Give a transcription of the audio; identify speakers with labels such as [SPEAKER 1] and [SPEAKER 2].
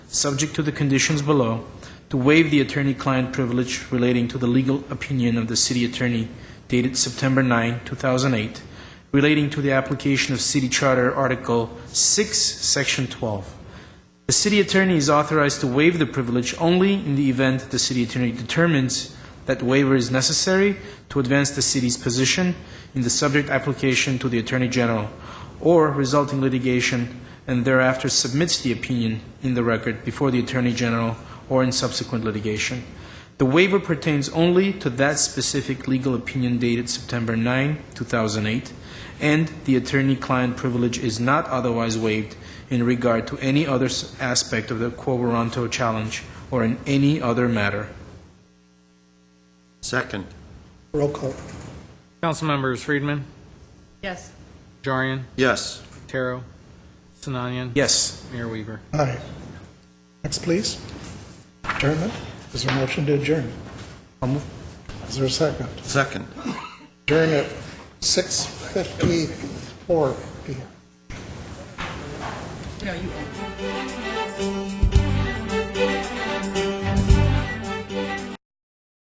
[SPEAKER 1] subject to the conditions below, to waive the attorney-client privilege relating to the legal opinion of the city attorney dated September 9, 2008, relating to the application of City Charter Article 6, Section 12. The city attorney is authorized to waive the privilege only in the event the city attorney determines that waiver is necessary to advance the city's position in the subject application to the attorney general or resulting litigation and thereafter submits the opinion in the record before the attorney general or in subsequent litigation. The waiver pertains only to that specific legal opinion dated September 9, 2008, and the attorney-client privilege is not otherwise waived in regard to any other s- aspect of the quo warranto challenge or in any other matter.
[SPEAKER 2] Second.
[SPEAKER 3] Roll call.
[SPEAKER 4] Councilmembers Friedman,
[SPEAKER 5] Yes.
[SPEAKER 4] Najarian,
[SPEAKER 2] Yes.
[SPEAKER 4] Taro, Sinanian,
[SPEAKER 1] Yes.
[SPEAKER 4] Mayor Weaver.
[SPEAKER 3] Aye. Next, please. Adjournment. Is there a motion to adjourn? Is there a second?
[SPEAKER 2] Second.
[SPEAKER 3] Adjourn at 6:54 PM.
[SPEAKER 5] No, you.